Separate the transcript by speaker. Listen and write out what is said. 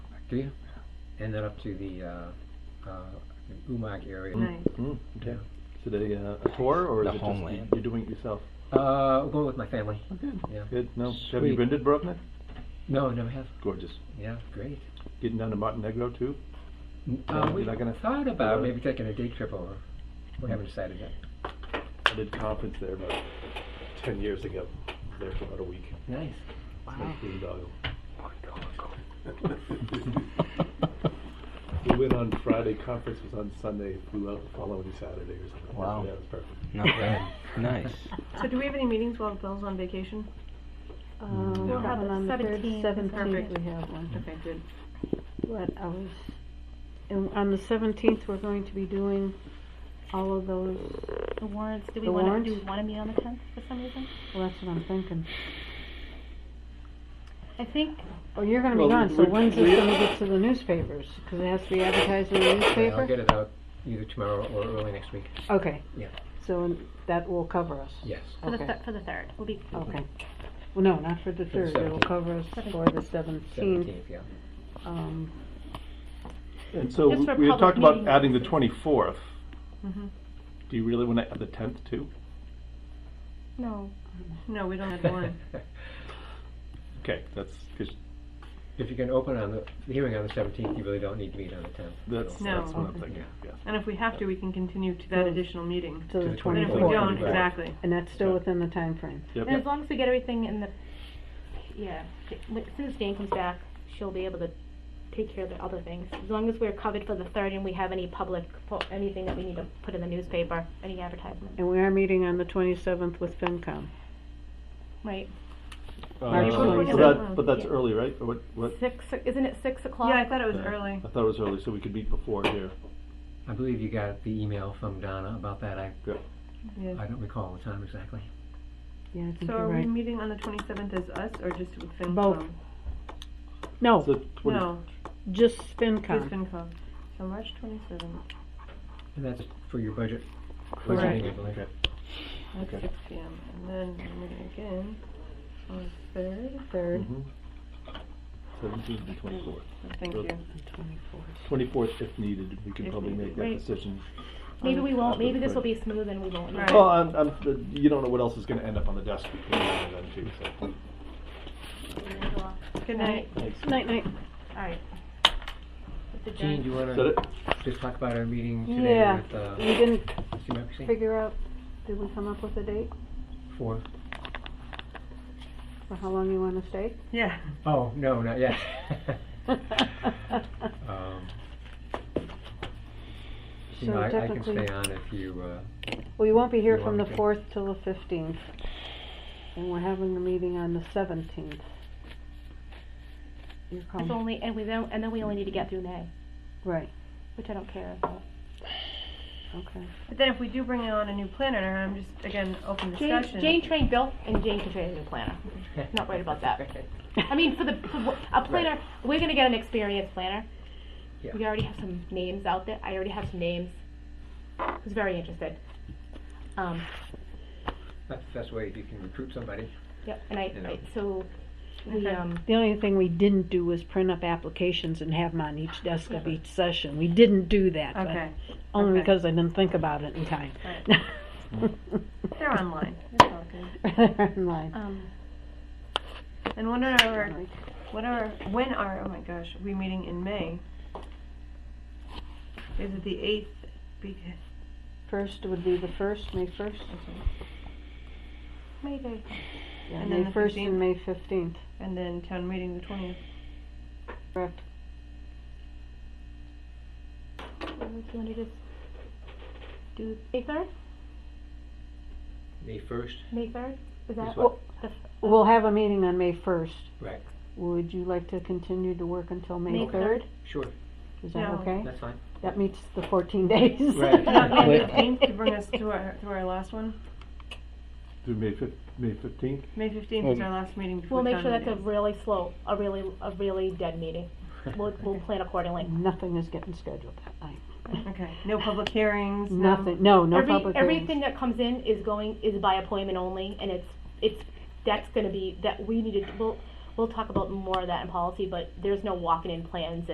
Speaker 1: street, and then up to the, uh, uh, Umak area.
Speaker 2: Nice.
Speaker 3: Mm, okay. Is it a, uh, a tour or is
Speaker 4: The
Speaker 3: it just you-
Speaker 4: homeland.
Speaker 3: you're doing it yourself?
Speaker 1: Uh, going with my family. Yeah.
Speaker 3: Good. No. Have you
Speaker 1: Sweet.
Speaker 3: been to Dubrovnik?
Speaker 1: No, never have.
Speaker 3: Gorgeous.
Speaker 1: Yeah, great.
Speaker 3: Getting down to Montenegro too.
Speaker 1: Uh,
Speaker 3: you're
Speaker 1: we
Speaker 3: not gonna-
Speaker 1: thought about
Speaker 3: uh,
Speaker 1: maybe taking a day trip over. We haven't decided yet.
Speaker 3: I did conference there about ten years ago. There for about a week.
Speaker 1: Nice.
Speaker 3: Like boondoggle. we went on Friday. Conference was on Sunday. Flew out the following Saturday or something.
Speaker 4: Wow.
Speaker 3: Yeah, it was perfect.
Speaker 4: Not bad. nice.
Speaker 2: So do we have any meetings while Bill's on vacation?
Speaker 5: Uh, we'll have one on the third,
Speaker 6: Seventeenth.
Speaker 5: seventeenth
Speaker 2: Perfect.
Speaker 5: we have one.
Speaker 2: Okay, good.
Speaker 5: What I was, and on the seventeenth, we're going to be doing all of those,
Speaker 6: The warrants, do we
Speaker 5: The
Speaker 6: want
Speaker 5: warrants?
Speaker 6: to, do we want to meet on the tenth for some reason?
Speaker 5: well, that's what I'm thinking.
Speaker 6: I think,
Speaker 5: Oh, you're gonna be
Speaker 3: Well,
Speaker 5: gone, so
Speaker 3: we-
Speaker 5: when's
Speaker 3: we-
Speaker 5: this gonna get to the newspapers? Cause it has to be advertised in the
Speaker 1: Yeah, I'll
Speaker 5: newspaper?
Speaker 1: get it out either tomorrow or early next week.
Speaker 5: Okay.
Speaker 1: Yeah.
Speaker 5: So that will cover us?
Speaker 1: Yes.
Speaker 6: for the,
Speaker 5: Okay.
Speaker 6: thir- for the third, we'll be,
Speaker 5: Okay. Well, no, not for the
Speaker 1: For the
Speaker 5: third, it'll
Speaker 1: 17th.
Speaker 5: cover us for the seventeenth.
Speaker 1: Seventeenth, yeah.
Speaker 5: Um,
Speaker 3: And so
Speaker 6: Just for
Speaker 3: we had
Speaker 6: public
Speaker 3: talked about
Speaker 6: meetings. Mm-hmm.
Speaker 3: adding the twenty-fourth. Do you really want to add the tenth too?
Speaker 6: no.
Speaker 2: No, we don't have one.
Speaker 3: Okay, that's, 'cause
Speaker 1: If you can open on the, the hearing on the seventeenth, you really don't need to meet on the tenth.
Speaker 3: that's,
Speaker 2: No.
Speaker 3: that's what I'm thinking, yes.
Speaker 2: And if we have to, we can continue to that additional meeting.
Speaker 5: to
Speaker 1: the
Speaker 5: the
Speaker 2: And if we
Speaker 1: 24th.
Speaker 2: don't,
Speaker 5: twenty-fourth.
Speaker 1: Right.
Speaker 2: exactly.
Speaker 5: And that's still within the time frame.
Speaker 3: Yep.
Speaker 6: And as long as we get everything in the, yeah, as soon as Jane comes back, she'll be able to take care of the other things. As long as we're covered for the third and we have any public, po- anything that we need to put in the newspaper, any advertisement,
Speaker 5: And we are meeting on the twenty-seventh with FinCom.
Speaker 6: right?
Speaker 3: Uh,
Speaker 5: March
Speaker 3: But
Speaker 5: 27th.
Speaker 3: that, but that's
Speaker 6: Yeah.
Speaker 3: early, right? Or What, what?
Speaker 6: Six, isn't it six o'clock?
Speaker 2: Yeah, I thought it was
Speaker 3: uh,
Speaker 2: early.
Speaker 3: I thought it was early, so we could meet before here.
Speaker 1: I believe you got the email from Donna about that. I,
Speaker 2: Yeah.
Speaker 1: I don't recall the time exactly.
Speaker 5: Yeah, I think
Speaker 2: So
Speaker 5: you're
Speaker 2: are we
Speaker 5: right.
Speaker 2: meeting on the twenty-seventh as us or just with FinCom?
Speaker 5: Both. No,
Speaker 3: So twenty,
Speaker 2: Oh, No,
Speaker 5: just
Speaker 2: just
Speaker 5: FinCom.
Speaker 2: FinCom. So March twenty-seventh,
Speaker 1: And that's for your budget.
Speaker 5: Correct.
Speaker 1: budgeting, I believe.
Speaker 2: at
Speaker 3: Okay.
Speaker 2: six P M. And then we're meeting again on the third.
Speaker 5: Third
Speaker 3: Mm-hmm. seventeenth and twenty-fourth.
Speaker 2: Thank
Speaker 3: Good.
Speaker 2: you.
Speaker 5: and twenty-fourth.
Speaker 3: Twenty-fourth if needed, we could
Speaker 2: If
Speaker 3: probably
Speaker 2: needed.
Speaker 3: make that
Speaker 6: Right.
Speaker 3: decision.
Speaker 6: Maybe we won't,
Speaker 3: Probably
Speaker 6: maybe this will
Speaker 3: right.
Speaker 6: be smooth and we won't. know.
Speaker 2: Right.
Speaker 3: Well, I'm, I'm, uh, you don't know what else is gonna end up on the desk between now and then too, so.
Speaker 2: Good night.
Speaker 3: Thanks.
Speaker 5: Night, night.
Speaker 6: Alright. It's
Speaker 1: Gene, do
Speaker 6: adjourned.
Speaker 1: you
Speaker 3: Is that
Speaker 1: wanna
Speaker 3: it?
Speaker 1: just talk about our meeting today
Speaker 5: Yeah,
Speaker 1: with, uh,
Speaker 5: we didn't
Speaker 1: CMRPC?
Speaker 5: figure out, did we come up with a date
Speaker 1: Four?
Speaker 5: for how long you wanna stay?
Speaker 2: Yeah.
Speaker 1: Oh, no, not yet. Um, You
Speaker 5: So
Speaker 1: know, I, I can
Speaker 5: technically-
Speaker 1: stay on if you, uh,
Speaker 5: We won't be here
Speaker 1: You
Speaker 5: from the
Speaker 1: want me to?
Speaker 5: fourth till the fifteenth. And we're having a meeting on the seventeenth. You're
Speaker 6: It's
Speaker 5: coming,
Speaker 6: only, and we don't, and then we only need to get through May,
Speaker 5: right,
Speaker 6: which I don't care about.
Speaker 5: okay.
Speaker 2: But then if we do bring on a new planner, I'm just, again, open
Speaker 6: Jane,
Speaker 2: discussion.
Speaker 6: Jane trained Bill, and Jane can train a new planner. Not worried about that. I mean, for the for wha- a planner, we're gonna get an experienced planner.
Speaker 1: Yeah.
Speaker 6: We already have some names out there. I already have some names. Who's very interested. Um,
Speaker 1: that's, that's the way you can recruit somebody.
Speaker 6: yep. And I,
Speaker 1: You know.
Speaker 6: I so we
Speaker 2: Okay.
Speaker 6: um
Speaker 5: The only thing we didn't do was print up applications and have them on each desk of each session. We didn't do that, but
Speaker 2: Okay.
Speaker 5: only
Speaker 2: okay.
Speaker 5: because I didn't think about it in time.
Speaker 2: They're online. It's all good.
Speaker 5: Online.
Speaker 6: um
Speaker 2: And when are our, what are, when are, oh my gosh, we meeting in May? Is it the eighth? Because
Speaker 5: First would be the first, May first,
Speaker 6: maybe
Speaker 5: yeah,
Speaker 2: And
Speaker 5: May
Speaker 2: then the
Speaker 5: first
Speaker 2: 15th.
Speaker 5: and May fifteenth,
Speaker 2: And then town meeting the twentieth.
Speaker 5: correct?
Speaker 6: do you want to just do May third?
Speaker 1: May first,
Speaker 6: May third? Is that
Speaker 1: Is what?
Speaker 6: the
Speaker 5: We'll have a meeting on May first.
Speaker 1: Right.
Speaker 5: Would you like to continue to work until May
Speaker 6: May
Speaker 5: third?
Speaker 6: 3rd?
Speaker 1: sure,
Speaker 5: Is that
Speaker 2: No.
Speaker 5: okay?
Speaker 1: that's fine.
Speaker 5: That meets the fourteen days.
Speaker 1: Right.
Speaker 2: Not May
Speaker 1: Wait.
Speaker 2: fifteenth to bring us to our, to our last one.
Speaker 3: Through May fif, May fifteenth?
Speaker 2: May fifteenth is our last meeting before
Speaker 6: We'll make
Speaker 2: town
Speaker 6: sure that's a
Speaker 2: meeting.
Speaker 6: really slow, a really a really dead meeting. We'll we'll plan accordingly.
Speaker 5: Nothing is getting scheduled that night.
Speaker 2: Okay, no public hearings, no-
Speaker 5: Nothing, no, no
Speaker 6: Every,
Speaker 5: public hearings.
Speaker 6: everything that comes in is going, is by appointment only, and it's, it's, that's gonna be, that we need to, we'll, we'll talk about more of that in policy, but there's no walking in plans and